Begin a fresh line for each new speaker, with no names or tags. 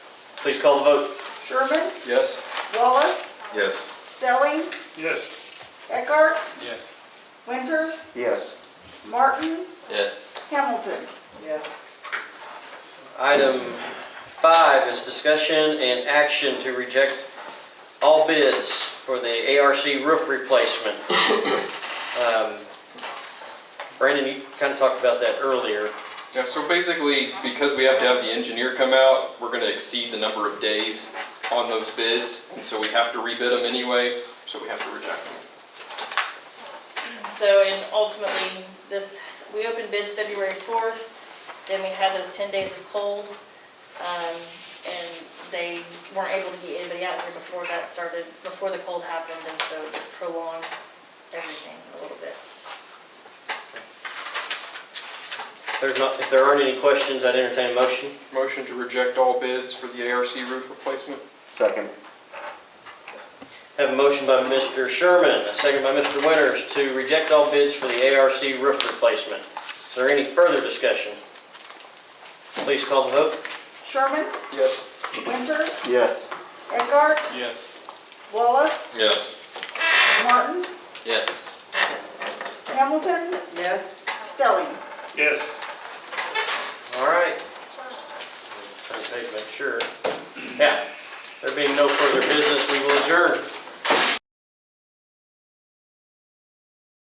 Please call the vote.
Sherman,
Yes.
Wallace,
Yes.
Stelling,
Yes.
Eckhart,
Yes.
Winters,
Yes.
Martin,
Yes.
Hamilton.
Yes.
Item five is discussion and action to reject all bids for the ARC roof replacement. Um, Brandon, you kind of talked about that earlier.
Yeah, so basically, because we have to have the engineer come out, we're gonna exceed the number of days on those bids, and so we have to rebid them anyway, so we have to reject them.
So, and ultimately, this, we opened bids February 4th, then we had those 10 days of cold, um, and they weren't able to get anybody out here before that started, before the cold happened, and so it just prolonged everything a little bit.
If There's not, if there aren't any questions, I'd entertain a motion.
Motion to reject all bids for the ARC roof replacement?
Second.
Have a motion by Mr. Sherman, a second by Mr. Winters to reject all bids for the ARC roof replacement. Is there any further discussion? Please call the vote.
Sherman,
Yes.
Winters,
Yes.
Eckhart,
Yes.
Wallace,
Yes.
Martin,
Yes.
Hamilton,
Yes.
Stelling.
Yes.
All right. Trying to take, make sure. Yeah, there being no further business, we will adjourn.